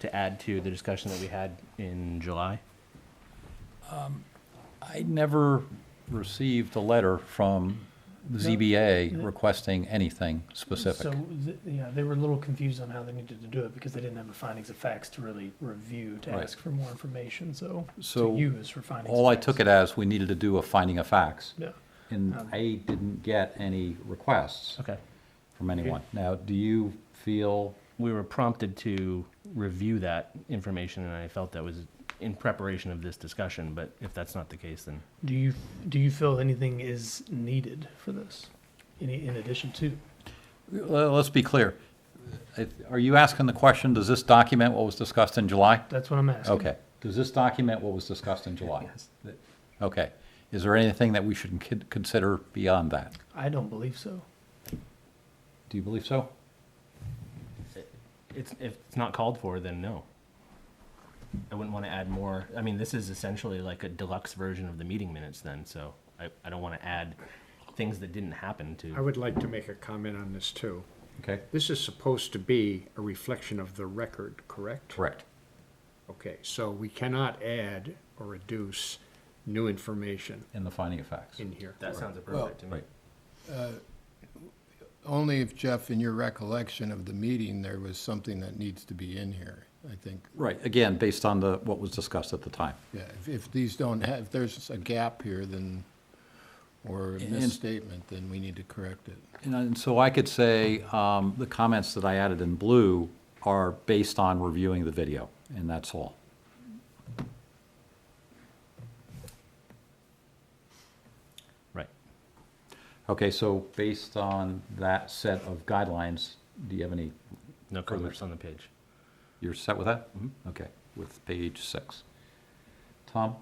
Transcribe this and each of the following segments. to add to the discussion that we had in July? I never received a letter from ZBA requesting anything So, specific. th- yeah, they were a little confused on how they needed to do it because they didn't have the findings of facts to really review, to Right. ask for more information, so So to use for findings. of All I facts. took it as, we needed to do a finding of facts, Yeah, and Um, I didn't get any requests Okay. from anyone. Now, do you feel, We were prompted to review that information, and I felt that was in preparation of this discussion, but if that's not the case, then do you, do you feel anything is needed for this? Any, in addition to? le- let's be clear, If- are you asking the question, does this document what was discussed in July? That's what I'm asking. Okay, does this document what was discussed in July? Yes. Okay, is there anything that we should con- consider beyond that? I don't believe so. Do you believe so? it's, if it's not called for, then no. I wouldn't want to add more. I mean, this is essentially like a deluxe version of the meeting minutes then, so I, I don't want to add things that didn't happen I to. would like to make a comment on this too. Okay, This is supposed to be a reflection of the record, correct? correct. Okay, so we cannot add or reduce new information In the finding of facts. in here. That sounds Well- appropriate to me. Right. Only if, Jeff, in your recollection of the meeting, there was something that needs to be in here, I think. Right, again, based on the, what was discussed at the time. Yeah, if, if these don't have, if there's a gap here, then, or a And- misstatement, then we need to correct it. And I- And so I could say, um, the comments that I added in blue are based on reviewing the video, and that's all. Right. Okay, so based on that set of guidelines, do you have any, No Further. comments on the page. you're set with that? Okay, with page six. Tom?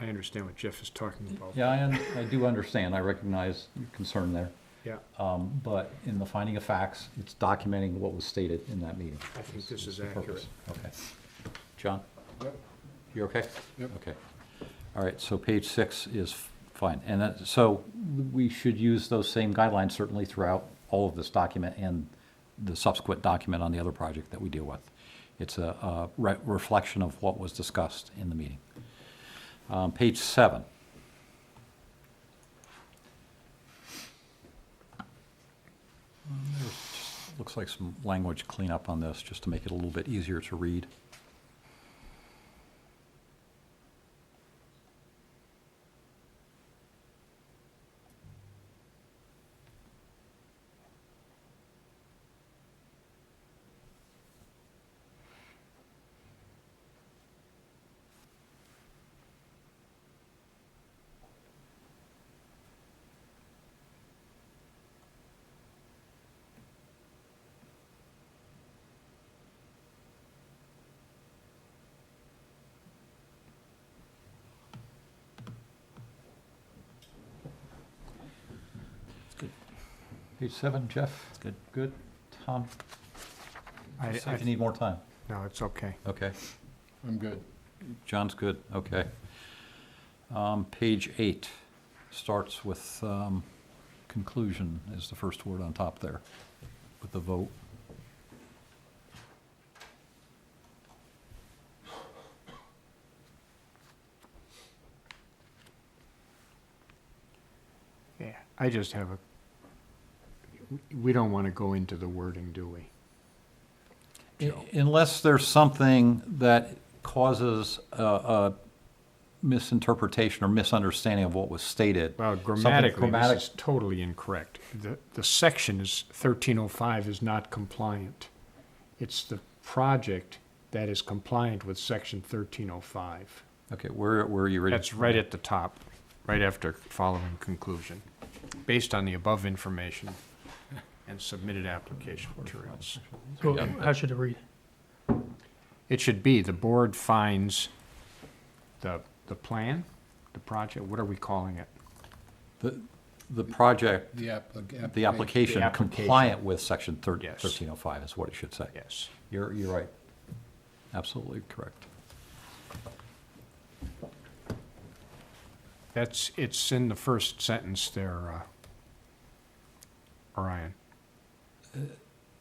I understand what Jeff is talking about. Yeah, I, un- I do understand, I recognize your concern there, Yeah, um, but in the finding of facts, it's documenting what was stated in that meeting. I think this is the accurate. purpose. Okay. John? You okay? Yep. Okay. All right, so page six is f- fine. And that, so we should use those same guidelines certainly throughout all of this document and the subsequent document on the other project that we deal with. It's a, a re- reflection of what was discussed in the meeting. Um, page seven. Um, there's just- Looks like some language cleanup on this, just to make it a little bit easier to read. Page seven, Jeff? It's good. Good. Tom, I- just if I- you need more time. No, it's okay. Okay. I'm good. John's good, okay. Um, Page eight starts with um, conclusion is the first word on top there, with the vote. Yeah, I just have a, we don't want to go into the wording, do we? Joe. Unless there's something that causes a- a misinterpretation or misunderstanding of what was stated. Well, Something grammatically, grammatic- this is totally incorrect. The, the section is, 1305 is not compliant. It's the project that is compliant with section 1305. Okay, where, where are you reading? That's right at the top, right after following conclusion. Based on the above information and submitted application materials. So how should it read? It should be, the board finds the, the plan, the project, what are we calling it? The- The project, The application. the application application. compliant with section thir- Yes. 1305 is what it should say. Yes. You're, you're right. Absolutely correct. That's, it's in the first sentence there, uh, Orion.